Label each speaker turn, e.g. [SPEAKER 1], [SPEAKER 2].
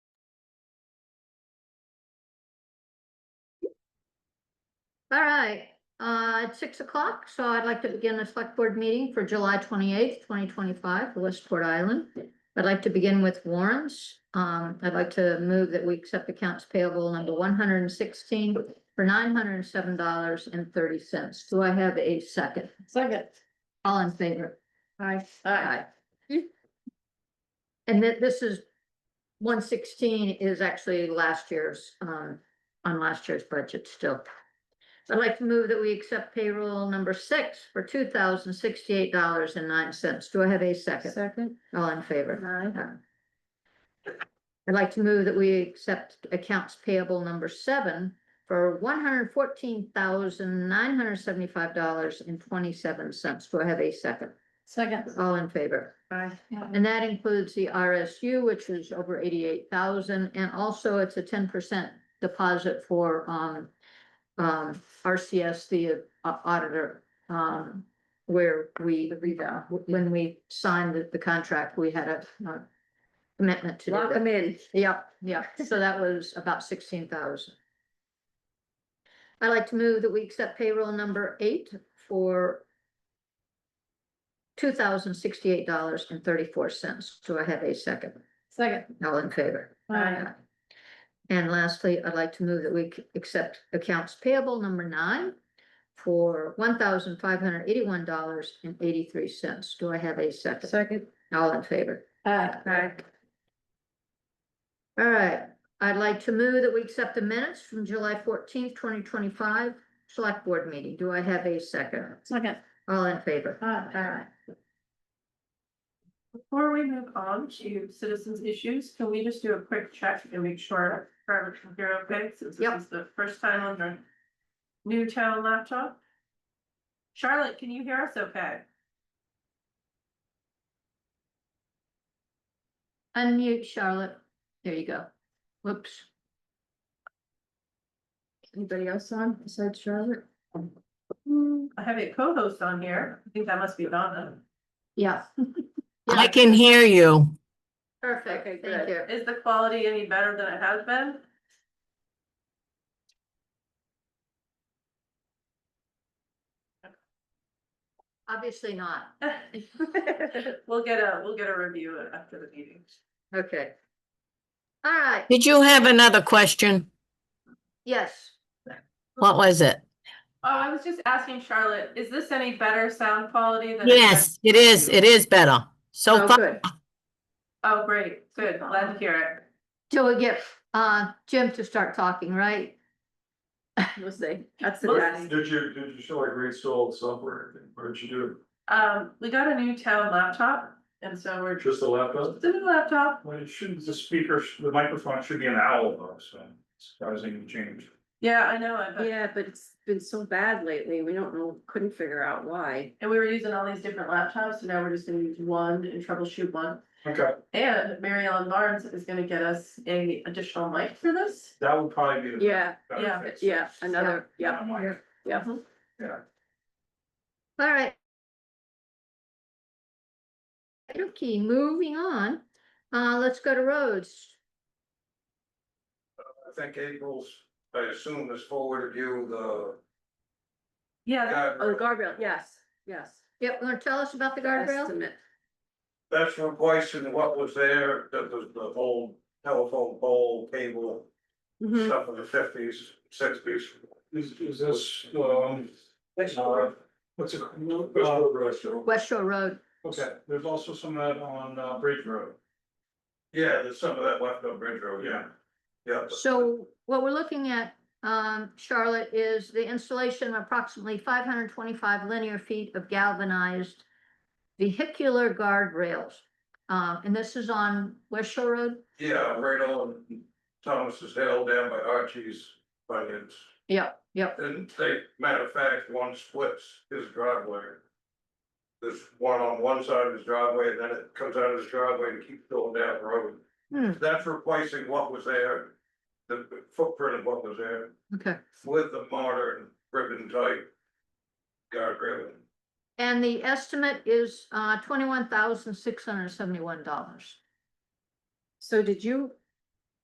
[SPEAKER 1] All right, uh, it's six o'clock, so I'd like to begin the select board meeting for July twenty-eighth, twenty twenty-five, for Westport Island. I'd like to begin with warrants. Um, I'd like to move that we accept accounts payable number one hundred and sixteen for nine hundred and seven dollars and thirty cents. Do I have a second?
[SPEAKER 2] Second.
[SPEAKER 1] All in favor?
[SPEAKER 2] Aye.
[SPEAKER 1] Aye. And that this is, one sixteen is actually last year's, um, on last year's budget still. I'd like to move that we accept payroll number six for two thousand sixty-eight dollars and nine cents. Do I have a second?
[SPEAKER 2] Second.
[SPEAKER 1] All in favor?
[SPEAKER 2] Aye.
[SPEAKER 1] I'd like to move that we accept accounts payable number seven for one hundred fourteen thousand nine hundred seventy-five dollars and twenty-seven cents. Do I have a second?
[SPEAKER 2] Second.
[SPEAKER 1] All in favor?
[SPEAKER 2] Aye.
[SPEAKER 1] And that includes the RSU, which is over eighty-eight thousand, and also it's a ten percent deposit for, um, um, RCS, the uh, auditor, um, where we, uh, when we signed the, the contract, we had a, uh, commitment to do
[SPEAKER 2] Lock
[SPEAKER 1] that.
[SPEAKER 2] them in.
[SPEAKER 1] Yep, yep, so that was about sixteen thousand. I'd like to move that we accept payroll number eight for two thousand sixty-eight dollars and thirty-four cents. Do I have a second?
[SPEAKER 2] Second.
[SPEAKER 1] All in favor?
[SPEAKER 2] Aye.
[SPEAKER 1] And lastly, I'd like to move that we c- accept accounts payable number nine for one thousand five hundred eighty-one dollars and eighty-three cents. Do I have a second?
[SPEAKER 2] Second.
[SPEAKER 1] All in favor?
[SPEAKER 2] Aye.
[SPEAKER 1] All right, I'd like to move that we accept the minutes from July fourteenth, twenty twenty-five, select board meeting. Do I have a second?
[SPEAKER 2] Second.
[SPEAKER 1] All in favor?
[SPEAKER 2] Aye.
[SPEAKER 3] Before we move on to citizens issues, can we just do a quick check and make sure our computer okay, since
[SPEAKER 1] Yep.
[SPEAKER 3] this is the first time on our new town laptop? Charlotte, can you hear us okay?
[SPEAKER 1] Unmute Charlotte. There you go. Whoops.
[SPEAKER 2] Anybody else on besides Charlotte?
[SPEAKER 3] I have a co-host on here. I think that must be Donna.
[SPEAKER 1] Yeah.
[SPEAKER 4] I
[SPEAKER 1] Yeah,
[SPEAKER 4] can hear you.
[SPEAKER 1] Perfect, thank you.
[SPEAKER 3] Is the quality any better than it has been?
[SPEAKER 1] Obviously not.
[SPEAKER 3] We'll get a, we'll get a review after the meeting.
[SPEAKER 1] Okay. All right,
[SPEAKER 4] Did you have another question?
[SPEAKER 1] yes.
[SPEAKER 4] What was it?
[SPEAKER 3] Oh, I was just asking Charlotte, is this any better sound quality than? it has
[SPEAKER 4] Yes, it is. It is better. So
[SPEAKER 2] Oh,
[SPEAKER 4] far,
[SPEAKER 2] good.
[SPEAKER 3] Oh, great, good, glad to hear it.
[SPEAKER 1] Till we get uh Jim to start talking, right?
[SPEAKER 2] We'll see. That's the
[SPEAKER 3] We'll
[SPEAKER 2] best.
[SPEAKER 5] Did you, did you show like reinstalled software? What did you do?
[SPEAKER 3] Um, we got a new town laptop, and so we're just
[SPEAKER 5] Just a laptop?
[SPEAKER 3] a new laptop,
[SPEAKER 5] Well, it shouldn't, the speaker, sh- the microphone should be an owl though, so it's causing change.
[SPEAKER 3] yeah, I know, it, but,
[SPEAKER 2] Yeah, but it's been so bad lately. We don't know, couldn't figure out why.
[SPEAKER 3] and we were using all these different laptops, so now we're just gonna use one and troubleshoot one.
[SPEAKER 5] Okay,
[SPEAKER 3] And Mary Ellen Barnes is gonna get us a additional mic for this,
[SPEAKER 5] that would probably be. the
[SPEAKER 2] Yeah,
[SPEAKER 5] better
[SPEAKER 3] yeah,
[SPEAKER 5] fix.
[SPEAKER 2] yeah, another, yeah,
[SPEAKER 5] Yeah, mic.
[SPEAKER 2] yeah.
[SPEAKER 3] Mm-hmm.
[SPEAKER 5] Yeah.
[SPEAKER 1] All right. Okay, moving on. Uh, let's go to roads.
[SPEAKER 5] I think April's, I assume has forwarded you the.
[SPEAKER 3] yeah,
[SPEAKER 2] Oh, the guardrail, yes, yes.
[SPEAKER 1] Yep, wanna tell us about the guardrail?
[SPEAKER 2] Estimate.
[SPEAKER 5] That's replacing what was there, that was the old telephone pole cable
[SPEAKER 2] Mhm.
[SPEAKER 5] stuff of the fifties, sixties. Is, is this, um, uh, what's it? Uh,
[SPEAKER 1] West Shore Road.
[SPEAKER 5] Okay, there's also some of that on, uh, Bridge Road. Yeah, there's some of that left on Bridge Road, yeah. Yeah.
[SPEAKER 1] So what we're looking at, um, Charlotte, is the installation of approximately five hundred twenty-five linear feet of galvanized vehicular guardrails. Uh, and this is on West Shore Road?
[SPEAKER 5] Yeah, right on Thomas's Hill down by Archie's, but it's,
[SPEAKER 1] Yep, yep.
[SPEAKER 5] and they, matter of fact, one splits his driveway. There's one on one side of his driveway, and then it comes out of his driveway and keeps going down the road.
[SPEAKER 1] Hmm.
[SPEAKER 5] That's replacing what was there, the footprint of what was there.
[SPEAKER 1] Okay.
[SPEAKER 5] with the modern ribbon type guardrail.
[SPEAKER 1] And the estimate is, uh, twenty-one thousand six hundred seventy-one dollars.
[SPEAKER 2] So did you